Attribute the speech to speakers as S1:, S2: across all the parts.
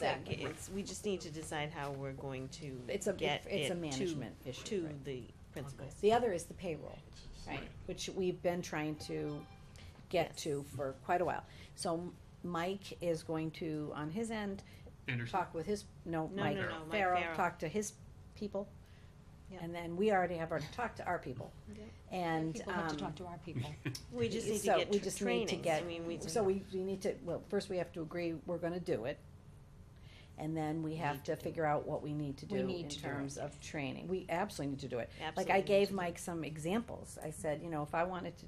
S1: that, it's, we just need to decide how we're going to
S2: It's a,
S1: get
S2: it's a
S1: it to-
S2: management issue.
S1: to
S2: right.
S1: the principals.
S2: The other is the payroll, right,
S3: Right.
S2: which we've been trying to get
S1: Yes.
S2: to for quite a while. So Mike is going to, on his end,
S3: Anderson,
S2: talk with his, no,
S1: No,
S2: Mike
S1: no, no, Mike
S2: Farrell,
S1: Farrell.
S2: talk to his people.
S1: Yeah.
S2: And then we already have already talked to our people.
S1: Yeah.
S2: And,
S4: People have to
S2: um,
S4: talk to our people.
S1: We just need to
S2: so
S1: get
S2: we
S1: tr-
S2: just need to
S1: trainings, I
S2: get,
S1: mean, we.
S2: so we, we need to, well, first we have to agree we're gonna do it. And then we have
S1: Need to
S2: to
S1: do
S2: figure out what we need to do
S4: We need
S2: in
S4: to do it.
S2: terms of training. We absolutely need to do it. Like
S1: absolutely
S2: I
S1: need
S2: gave
S1: to-
S2: Mike some examples. I said, you know, if I wanted to,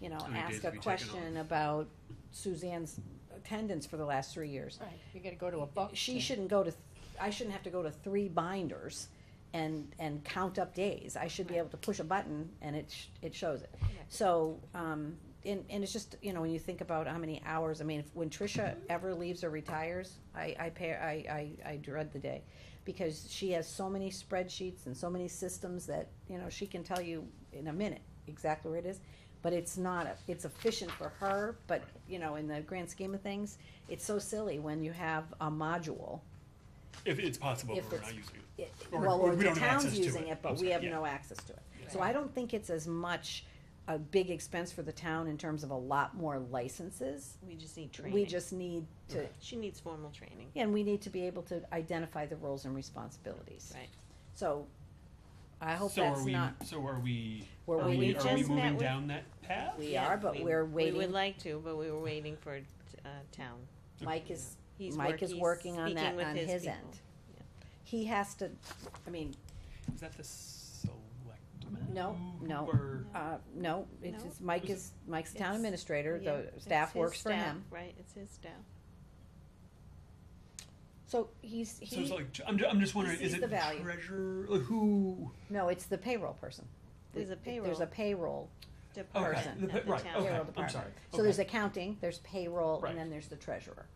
S2: you know,
S3: How many days
S2: ask a
S3: have you taken off?
S2: question about Suzanne's attendance for the last three years.
S4: Right, you gotta go to a book.
S2: She shouldn't go to, th- I shouldn't have to go to three binders and, and count up days. I should be able to push a button and it, sh- it shows it. So, um, and, and it's just, you know, when you think about how many hours, I mean, if, when Tricia ever leaves or retires, I, I pay, I, I, I dread the day. Because she has so many spreadsheets and so many systems that, you know, she can tell you in a minute exactly where it is. But it's not, a- it's efficient for her, but, you know, in the grand scheme of things, it's so silly when you have a module.
S3: if it's possible,
S2: If
S3: but we're
S2: it's-
S3: not using it.
S2: it-
S3: Or-
S2: Well,
S3: or
S2: or
S3: we
S2: the
S3: don't have access
S2: town's
S3: to
S2: using
S3: it.
S2: it, but
S3: I'm
S2: we
S3: sorry,
S2: have
S3: yeah.
S2: no access to it. So
S4: Right.
S2: I don't think it's as much a big expense for the town in terms of a lot more licenses.
S1: We just need
S2: We
S1: training.
S2: just need to,
S3: Okay.
S1: She needs formal training.
S2: and we need to be able to identify the roles and responsibilities.
S1: Right.
S2: So I hope
S3: So
S2: that's
S3: are we,
S2: not,
S3: so are we,
S2: we're
S3: are we,
S2: waiting,
S3: are we
S1: just met
S3: moving
S1: with-
S3: down that path?
S2: we
S1: Yeah,
S2: are, but
S1: we-
S2: we're
S1: We would
S2: waiting.
S1: like to, but we were waiting for, uh, town.
S2: Mike is,
S1: He's
S2: Mike
S1: work-
S2: is
S1: he's
S2: working on
S1: speaking
S2: that
S1: with
S2: on his
S1: people.
S2: end. He has to, I mean,
S3: Is that the selectmen?
S2: No, no.
S3: Or,
S2: uh, no, it's,
S1: No.
S2: it's- Mike
S3: Is Mm. it-
S2: is, Mike's the town
S1: It's-
S2: administrator,
S1: Yeah,
S2: the
S1: it's
S2: staff
S1: his
S2: works for
S1: staff,
S2: him.
S1: Right, it's his staff.
S2: So he's, he.
S3: so it's like, I'm, ju- I'm just wondering, is
S2: sees
S3: it
S2: the value.
S3: treasurer, like, who?
S2: No, it's the payroll person.
S1: There's a
S2: There's a
S1: payroll.
S2: payroll.
S3: Okay,
S1: Department
S2: Person
S3: the-
S1: at the
S3: right,
S1: town.
S3: okay,
S2: Payroll
S3: I'm
S2: department.
S3: sorry.
S2: So there's
S3: okay.
S2: accounting, there's payroll,
S3: Right.
S2: and then there's the treasurer,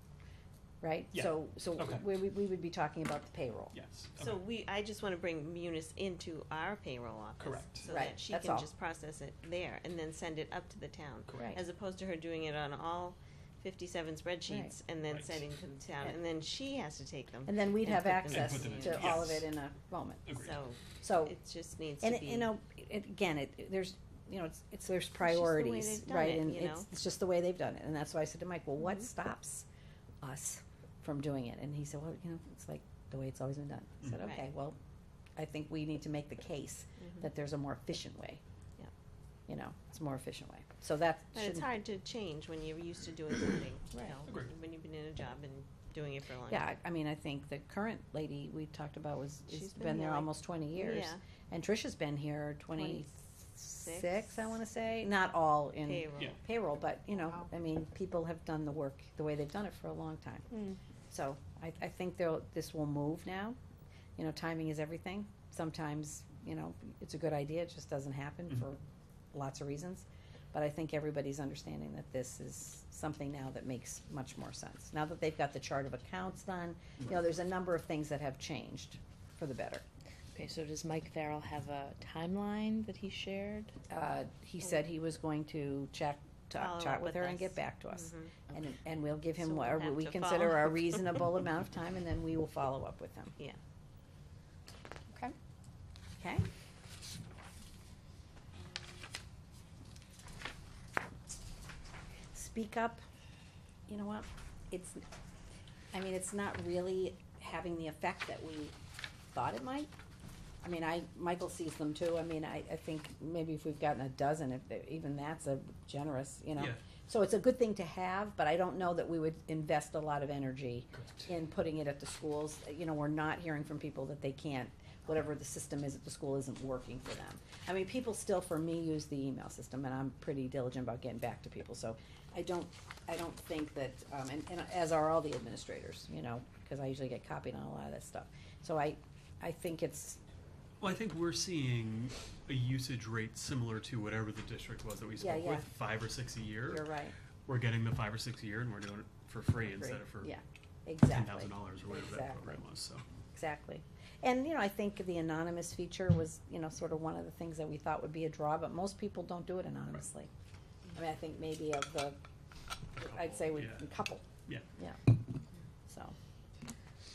S2: right?
S3: Yeah.
S2: So, so
S3: Okay.
S2: we, we we would be talking about the payroll.
S3: Yes,
S1: So
S3: okay,
S1: we, I just wanna bring Munis into our payroll office.
S3: Correct.
S1: So
S2: Right,
S1: that she
S2: that's
S1: can
S2: all.
S1: just process it there and then send it up to the town.
S2: Right.
S3: correct.
S1: As opposed to her doing it on all fifty-seven spreadsheets and then
S3: Right.
S1: sending to the town,
S2: Yeah.
S1: and then she has to take them.
S2: And then we'd
S1: And
S2: have
S1: put them in.
S2: access
S3: And put them in,
S2: to all of
S3: yes.
S2: it in a moment.
S3: Agreed.
S1: So
S2: So,
S1: it just needs to
S2: Oh. and,
S1: be.
S2: it- you know, it, again, it, there's, you know, it's, it's, there's
S1: way
S2: priorities,
S1: they've done
S2: right?
S1: it,
S2: And
S1: you
S2: it's,
S1: know?
S2: it's just the way they've done it. And that's why I said to Mike, well, what
S1: Mhm.
S2: stops us from doing it? And he said, well, you know, it's like the way it's always been done. I said,
S1: Mhm. Right.
S2: okay, well, I think we need to make the case
S1: Mhm.
S2: that there's a more efficient way.
S1: Yeah.
S2: You know, it's a more efficient way. So that
S1: But it's
S2: shouldn't,
S1: hard to change when you're used to doing something, you
S2: Right.
S1: know,
S3: Agreed.
S1: when you've been in a job and doing it for a long
S2: yeah,
S1: time.
S2: I I mean, I think the current lady we talked about was, has
S1: She's been
S2: been
S1: here,
S2: there
S1: like-
S2: almost twenty years.
S1: Yeah,
S2: And Tricia's been here twenty-six,
S1: 26?
S2: I wanna say, not all in
S1: payroll.
S3: Yeah.
S2: payroll, but, you know,
S4: Wow.
S2: I mean, people have done the work the way they've done it for a long time.
S4: Mm.
S2: So I, I think they'll, this will move now. You know, timing is everything. Sometimes, you know, it's a good idea, it just doesn't happen
S3: Mhm.
S2: for lots of reasons. But I think everybody's understanding that this is something now that makes much more sense. Now that they've got the chart of accounts done, you know, there's a number of things that have changed for the better.
S5: Okay, so does Mike Farrell have a timeline that he shared?
S2: Uh, he said he was going to check,
S1: Follow
S2: talk,
S1: up
S2: chat with
S1: with
S2: her
S1: us.
S2: and get back to us.
S1: Mhm.
S2: And, and we'll give
S1: So
S2: him
S1: we'll
S2: what
S1: have
S2: we
S1: to
S2: consider
S1: follow
S2: a
S1: up.
S2: reasonable amount of time and then we will follow up with him,
S4: Okay.
S2: okay? Speak up, you know what, it's, I mean, it's not really having the effect that we thought it might. I mean, I, Michael sees them too, I mean, I, I think maybe if we've gotten a dozen, if, even that's a generous, you know?
S3: Yeah.
S2: So it's a good thing to have, but I don't know that we would invest a lot of energy in putting it at the schools. You know, we're not hearing from people that they can't, whatever the system is at the school isn't working for them. I mean, people still, for me, use the email system, and I'm pretty diligent about getting back to people, so I don't, I don't think that, um, and, and as are all the administrators, you know, because I usually get copied on a lot of that stuff. So I, I think it's,
S3: Well, I think we're seeing a usage rate similar to whatever the district was that we
S2: Yeah,
S3: spoke
S2: yeah.
S3: with, five or six a year.
S2: you're right,
S3: We're getting the five or six a year and we're doing it for free instead of for
S2: yeah,
S3: ten
S2: exactly.
S3: thousand dollars or whatever that
S2: Exactly.
S3: program was, so.
S2: Exactly. And, you know, I think the anonymous feature was, you know, sort of one of the things that we thought would be a draw, but most people don't do it anonymously. I mean, I think maybe of the, I'd say we,
S3: Yeah.
S2: a couple.
S3: Yeah.
S2: Yeah.